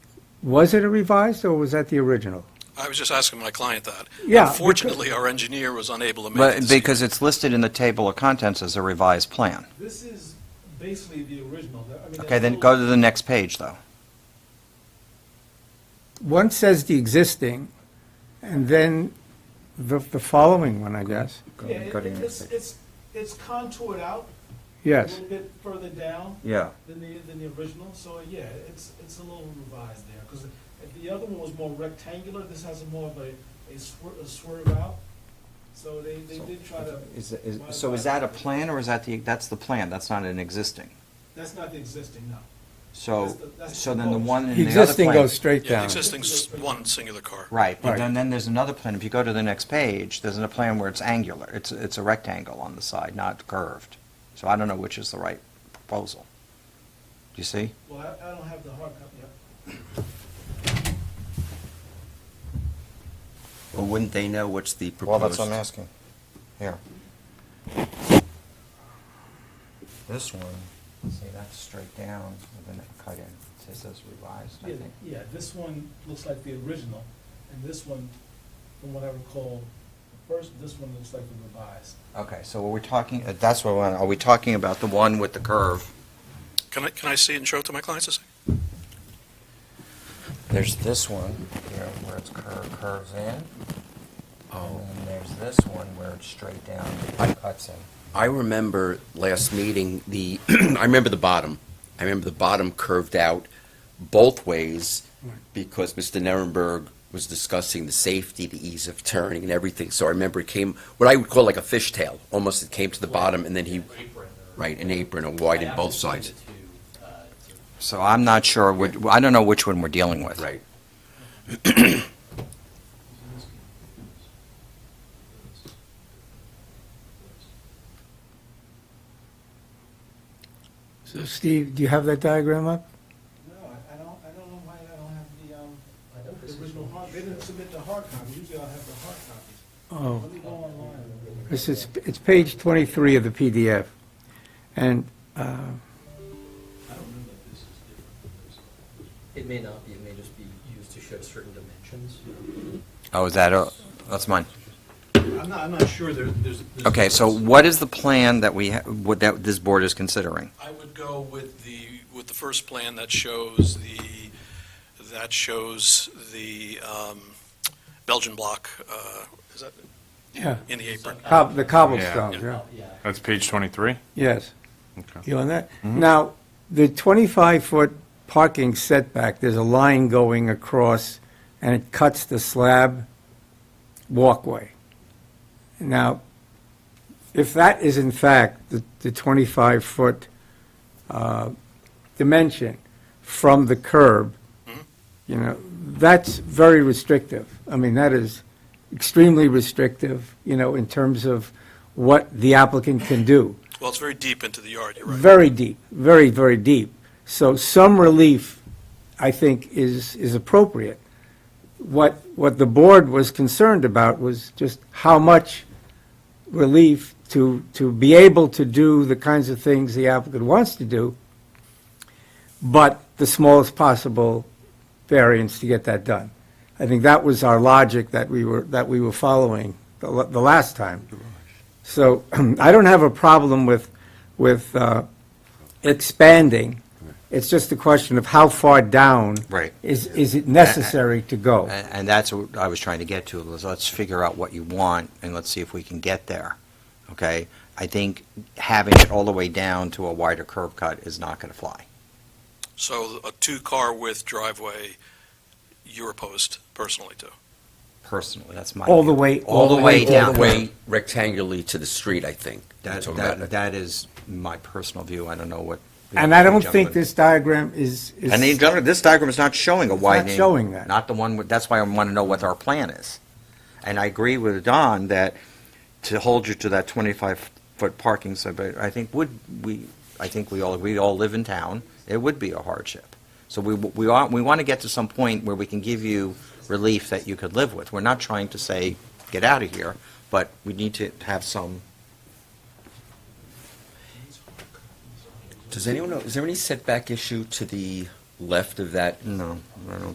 Was it a revised, or was that the original? I was just asking my client that. Yeah, because- Unfortunately, our engineer was unable to make it. But, this evening. because it's listed in the table of contents as a revised plan. This is basically the original. I mean, Okay, there's then little- go to the next page, though. One says the existing, and then the, the following one, I guess. Yeah, it- it's, it's, it's contoured out. A Yes. little bit further down Yeah. than the, than the original, so yeah, it's, it's a little revised there. Because the other one was more rectangular, this has a more of a, a swerve, a swerve out. So they, they did try to, Is- is- So is that a plan, or is that the, that's the plan, that's not an existing? that's not the existing, no. So, That's the- that's so then the one in the other plan. Existing goes straight Yeah, the down. existing's one singular car. Right, but Right. then, then there's another plan, if you go to the next page, there's a plan where it's angular, it's, it's a rectangle on the side, not curved. So I don't know which is the right proposal. Do you see? Well, I, I don't have the hard copy. Well, wouldn't they know what's the proposed? Well, that's what I'm asking. Here. This one, see, that's straight down with a cut in. It says revised, I Yeah, think. yeah, this one looks like the original, and this one, from what I recall, the first, this one looks like the revised. Okay, so we're talking, uh, that's what, I want- are we talking about the one with the curve? Can I, can I see it and show it to my clients? a sec? There's this one here where it's curve, curves in. And Oh. then there's this one where it's straight down, I- cuts in. I remember last meeting, the, I remember the bottom. I remember the bottom curved out both ways because Mr. Nirenberg was discussing the safety, the ease of turning and everything. So I remember it came, what I would call like a fishtail, almost it came to the bottom and then he, right, an apron or widened both sides. So I'm not sure, which- I don't know which one we're dealing with. Right. So Steve, do you have that diagram up? No, I I don't, I don't know why I don't have the, um, the original hard, they didn't submit the hard copy, usually I'll have the hard copies. Oh. Let me go online. This is, it's page 23 of the PDF. And uh, It may not be, it may just be used to show certain dimensions. Oh, is that, a- that's mine. I'm not, I'm not sure there, there's. there's- Okay, so what is the plan that we, ha- what that this board is considering? I would go with the, with the first plan that shows the, that shows the um, Belgian block, uh, is that yeah, in the apron? cob- the cobblestones, yeah. Oh, Yeah. That's page 23? Yes. Okay. You on that? Now, the 25-foot parking setback, there's a line going across, and it cuts the slab walkway. Now, if that is in fact the the 25-foot uh, dimension from the curb, you know, that's very restrictive. I mean, that is extremely restrictive, you know, in terms of what the applicant can do Well, it's very deep into the yard, you're right. very deep, very, very deep. So some relief, I think, is, is appropriate. What, what the board was concerned about was just how much relief to, to be able to do the kinds of things the applicant wants to do, but the smallest possible variance to get that done. I think that was our logic that we were, that we were following the, la- the last time. So I don't have a problem with, with uh, expanding. It's just a question of how far down. Right. Is, is it necessary to go? And and that's what I was trying to get to, was let's figure out what you want, and let's see if we can get there, okay? I think having it all the way down to a wider curb cut is not going to fly. So a two-car width driveway, you're opposed personally to. Personally, that's my. All the view. way- All the way All down. the way rectangularly to the street, I think. You're That, talking that, about- that is my personal view, I don't know what. And I don't Gentlemen. think this diagram is, is. And the general- this diagram is not showing a widening. showing that. Not the one, with- that's why I want to know what our plan is. And I agree with Don that to hold you to that 25-foot parking setback, I think would, we, I think we all, we all live in town, it would be a hardship. So we, we are, we want to get to some point where we can give you relief that you could live with. We're not trying to say, get out of here, but we need to have some, Does anyone know, is there any setback issue to the left of that no, I don't